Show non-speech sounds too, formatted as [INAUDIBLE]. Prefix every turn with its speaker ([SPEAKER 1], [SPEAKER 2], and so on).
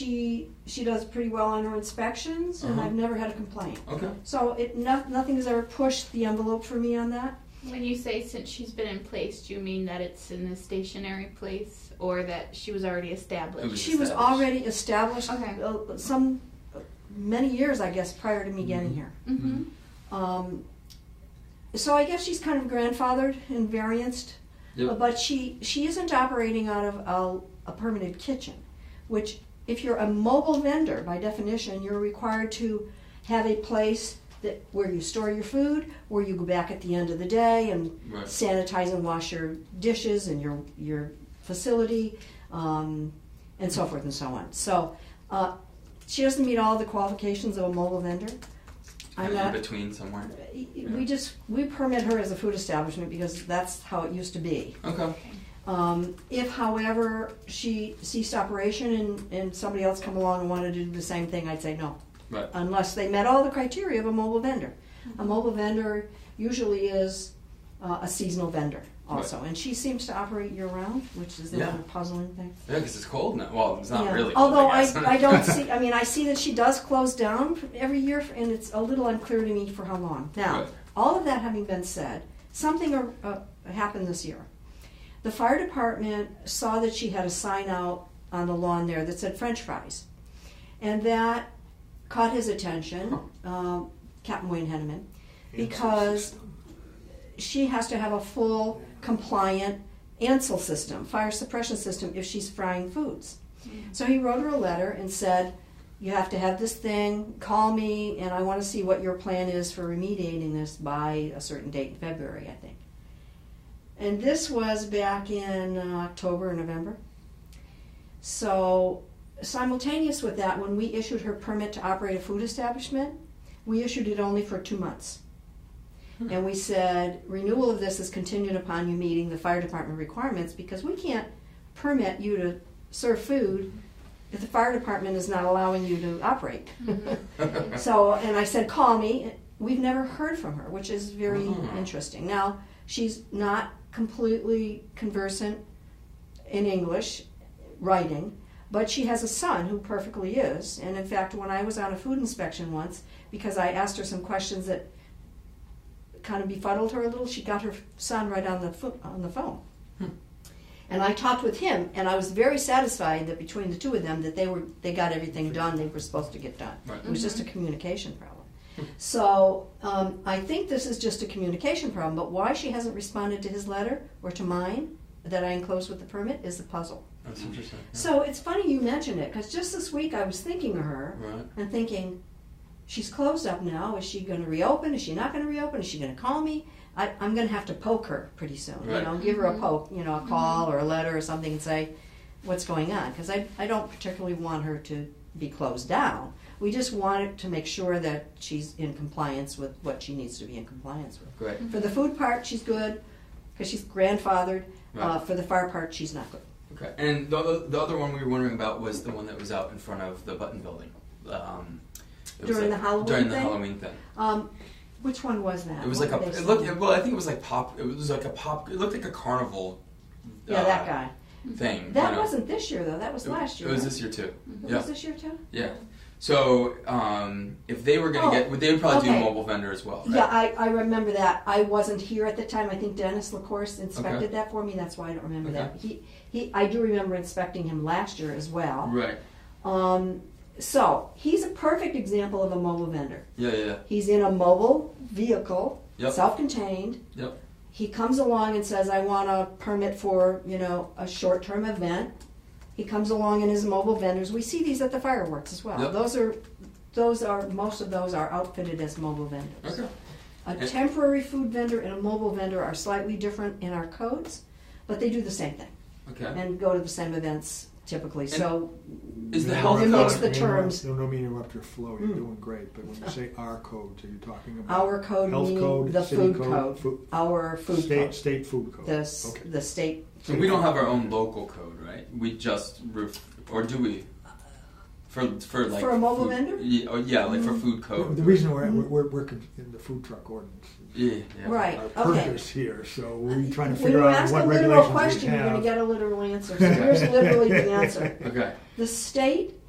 [SPEAKER 1] she she does pretty well on her inspections, and
[SPEAKER 2] Uh-huh.
[SPEAKER 1] I've never had a complaint.
[SPEAKER 2] Okay.
[SPEAKER 1] So it no, nothing has ever pushed the envelope for me on that.
[SPEAKER 3] When you say since she's been in place, do you mean that it's in a stationary place or that she was already established?
[SPEAKER 2] was
[SPEAKER 1] She was
[SPEAKER 2] established.
[SPEAKER 1] already established.
[SPEAKER 3] Okay.
[SPEAKER 1] uh, some many years, I guess, prior to me getting
[SPEAKER 2] Mhm.
[SPEAKER 1] here.
[SPEAKER 3] Mm-hmm.
[SPEAKER 1] Um, so I guess she's kind of grandfathered and varianced,
[SPEAKER 2] Yep.
[SPEAKER 1] but she she isn't operating out of a, a permanent kitchen, which if you're a mobile vendor by definition, you're required to have a place that where you store your food, where you go back at the end of the day and
[SPEAKER 2] Right.
[SPEAKER 1] sanitize and wash your dishes and your your facility, um, and so forth and so on. So uh, she doesn't meet all the qualifications of a mobile vendor. I'm
[SPEAKER 2] Kind of
[SPEAKER 1] not
[SPEAKER 2] in between somewhere.
[SPEAKER 1] we just, we permit her as a food establishment because that's how it used to be.
[SPEAKER 2] Okay.
[SPEAKER 1] Um, if however she ceased operation and, and somebody else come along and wanted to do the same thing, I'd say no.
[SPEAKER 2] Right.
[SPEAKER 1] Unless they met all the criteria of a mobile vendor. A mobile vendor usually is uh, a seasonal vendor also. And she seems to operate year round, which is the
[SPEAKER 2] Yeah.
[SPEAKER 1] other puzzling thing.
[SPEAKER 2] Yeah, because it's cold now. Well, it's not
[SPEAKER 1] Yeah.
[SPEAKER 2] really. Cold,
[SPEAKER 1] Although
[SPEAKER 2] I, guess.
[SPEAKER 1] I, I
[SPEAKER 2] [LAUGHS]
[SPEAKER 1] don't see, I mean, I see that she does close down every year, and it's a little unclear to me for how long. Now,
[SPEAKER 2] Right.
[SPEAKER 1] all of that having been said, something uh, uh, happened this year. The fire department saw that she had a sign out on the lawn there that said French fries, and that caught his attention, um, Captain Wayne Henneman, because she has to have a full compliant ANSEL system, fire suppression system, if she's frying foods. So he wrote her a letter and said, You have to have this thing, call me, and I want to see what your plan is for remediating this by a certain date in February, I think. And this was back in uh, October or November. So, simultaneous with that, when we issued her permit to operate a food establishment, we issued it only for two months. And we said, renewal of this is contingent upon you meeting the fire department requirements because we can't permit you to serve food if the fire department is not allowing you to operate. [LAUGHS] so, and I said, call me. We've never heard from her, which is very
[SPEAKER 2] Mhm.
[SPEAKER 1] interesting. Now, she's not completely conversant in English, writing, but she has a son who perfectly is. And in fact, when I was on a food inspection once, because I asked her some questions that kind of befuddled her a little, she got her son right on the fo- on the phone. And I talked with him, and I was very satisfied that between the two of them, that they were they got everything done they were supposed to get done.
[SPEAKER 2] Right.
[SPEAKER 1] It was just a communication problem. So um, I think this is just a communication problem. But why she hasn't responded to his letter or to mine that I enclosed with the permit is the puzzle.
[SPEAKER 2] That's interesting. yeah.
[SPEAKER 1] So it's funny you mentioned it because just this week I was thinking of her
[SPEAKER 2] Right.
[SPEAKER 1] and thinking, she's closed up now. Is she going to reopen? Is she not going to reopen? Is she going to call me? I, I'm going to have to poke her pretty soon.
[SPEAKER 2] Right.
[SPEAKER 1] You know, give her a poke, you know, a call or a letter or something and say, what's going on? Because I, I don't particularly want her to be closed down. We just want it to make sure that she's in compliance with what she needs to be in compliance with.
[SPEAKER 2] Great.
[SPEAKER 1] For the food part, she's good because she's grandfathered. Uh,
[SPEAKER 2] Right.
[SPEAKER 1] for the fire part, she's not good.
[SPEAKER 2] Okay. And the other, the other one we were wondering about was the one that was out in front of the Button Building. Um, it was
[SPEAKER 1] During
[SPEAKER 2] like-
[SPEAKER 1] the Halloween
[SPEAKER 2] During the
[SPEAKER 1] thing?
[SPEAKER 2] Halloween thing.
[SPEAKER 1] Um, which one was that?
[SPEAKER 2] It was
[SPEAKER 1] What
[SPEAKER 2] like a.
[SPEAKER 1] did they
[SPEAKER 2] It looked.
[SPEAKER 1] say?
[SPEAKER 2] It, well, I think it was like pop. It was like a pop. It looked like a carnival.
[SPEAKER 1] yeah,
[SPEAKER 2] uh,
[SPEAKER 1] that guy.
[SPEAKER 2] Thing.
[SPEAKER 1] That
[SPEAKER 2] you know.
[SPEAKER 1] wasn't this year though. That was
[SPEAKER 2] It-
[SPEAKER 1] last year.
[SPEAKER 2] It was
[SPEAKER 1] right?
[SPEAKER 2] this year too.
[SPEAKER 1] It
[SPEAKER 2] Yeah.
[SPEAKER 1] was this year too.
[SPEAKER 2] Yeah. So um, if they were gonna
[SPEAKER 1] Oh,
[SPEAKER 2] get, would they would probably do
[SPEAKER 1] okay.
[SPEAKER 2] a mobile vendor as well? Right?
[SPEAKER 1] Yeah, I, I remember that. I wasn't here at the time. I think Dennis Lacourse inspected that for me. That's why I don't remember that. He he. I do remember inspecting him last year as well.
[SPEAKER 2] Right.
[SPEAKER 1] Um, so he's a perfect example of a mobile vendor.
[SPEAKER 2] Yeah. Yeah. yeah.
[SPEAKER 1] He's in a mobile vehicle,
[SPEAKER 2] Yep.
[SPEAKER 1] self-contained.
[SPEAKER 2] Yep.
[SPEAKER 1] He comes along and says, "I want a permit for you know a short-term event." He comes along in his mobile vendors. We see these at the fireworks as well.
[SPEAKER 2] Yep.
[SPEAKER 1] Those are those are most of those are outfitted as mobile vendors.
[SPEAKER 2] Okay.
[SPEAKER 1] A
[SPEAKER 2] And-
[SPEAKER 1] temporary food vendor and a mobile vendor are slightly different in our codes, but they do the same thing
[SPEAKER 2] Okay.
[SPEAKER 1] and go to the same events typically. so
[SPEAKER 2] Is the
[SPEAKER 4] You
[SPEAKER 2] health
[SPEAKER 1] It
[SPEAKER 2] code?
[SPEAKER 1] makes the
[SPEAKER 4] you know,
[SPEAKER 1] terms-
[SPEAKER 4] You don't mean to interrupt your flow. You're
[SPEAKER 1] Mm.
[SPEAKER 4] doing great, but when you say our codes, are you talking about
[SPEAKER 1] our code
[SPEAKER 4] health
[SPEAKER 1] meaning
[SPEAKER 4] code,
[SPEAKER 1] the
[SPEAKER 4] city
[SPEAKER 1] food
[SPEAKER 4] code,
[SPEAKER 1] code,
[SPEAKER 4] food-
[SPEAKER 1] our food
[SPEAKER 4] state
[SPEAKER 1] code,
[SPEAKER 4] state food code?
[SPEAKER 1] the s-
[SPEAKER 4] okay.
[SPEAKER 1] the state.
[SPEAKER 2] So we don't have our own local code, right? We just roof, or do we? For for like
[SPEAKER 1] For a mobile
[SPEAKER 2] food-
[SPEAKER 1] vendor? Mm-hmm.
[SPEAKER 2] Yeah, oh, yeah, like for food
[SPEAKER 4] The-
[SPEAKER 2] code.
[SPEAKER 4] The reason we're,
[SPEAKER 1] Hmm.
[SPEAKER 4] we're, we're, we're con- in the food truck ordinance.
[SPEAKER 2] Yeah, yeah.
[SPEAKER 1] Right.
[SPEAKER 4] Our
[SPEAKER 1] okay.
[SPEAKER 4] purpose here, so we're trying to
[SPEAKER 1] When
[SPEAKER 4] figure
[SPEAKER 1] you
[SPEAKER 4] out
[SPEAKER 1] ask
[SPEAKER 4] what
[SPEAKER 1] a literal
[SPEAKER 4] regulations we
[SPEAKER 1] question, you're going
[SPEAKER 4] have. [LAUGHS]
[SPEAKER 1] to get a literal answer. So here's literally the answer.
[SPEAKER 2] Okay.
[SPEAKER 1] The state